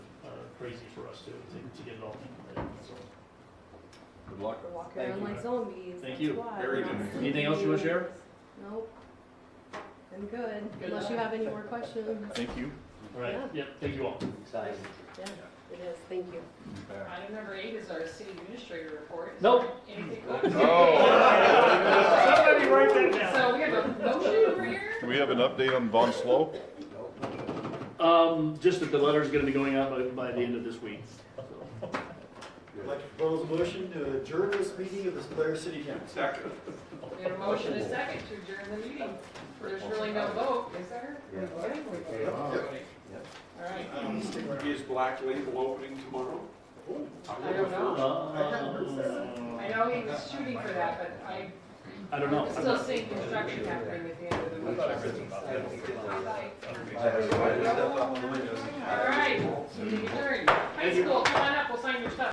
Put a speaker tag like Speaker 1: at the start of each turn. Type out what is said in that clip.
Speaker 1: crazy for us to, to- to get it all implemented, so.
Speaker 2: Good luck.
Speaker 3: Walk
Speaker 1: Thank
Speaker 3: around
Speaker 1: you.
Speaker 3: like zombies.
Speaker 1: Thank
Speaker 3: that's
Speaker 1: you.
Speaker 3: why.
Speaker 2: Very
Speaker 3: Not
Speaker 2: good.
Speaker 3: sleeping.
Speaker 1: Anything else you wanna share?
Speaker 3: Nope. I'm good, unless you have any more questions.
Speaker 2: Thank you.
Speaker 1: All right, yep, thank you all.
Speaker 4: Exciting.
Speaker 3: Yeah, it is, thank you.
Speaker 2: Back.
Speaker 5: Item number eight is our city administrator report. Is
Speaker 1: Nope.
Speaker 5: there anything-
Speaker 2: Oh.
Speaker 1: Somebody write that down.
Speaker 5: So we have a motion over here?
Speaker 2: Do we have an update on Von Slow?
Speaker 1: Um, just that the letter's gonna be going out by, by the end of this week. so.
Speaker 4: I'd like to propose a motion to adjourn this meeting of the Blair City Council.
Speaker 5: We have a motion and a second to adjourn the meeting. There's really no vote, is there? We're voting, we're voting, we're voting. All right.
Speaker 6: Is Black Label opening tomorrow?
Speaker 5: I don't know. I
Speaker 1: Uh,
Speaker 5: know he was shooting for that, but I-
Speaker 1: I don't know.
Speaker 5: I'm
Speaker 1: I'm
Speaker 5: still
Speaker 1: not-
Speaker 5: seeing construction happening at the end of the week.
Speaker 4: I have to step out on the windows.
Speaker 5: All right, meeting adjourned. High school, come on up, we'll sign your stuff.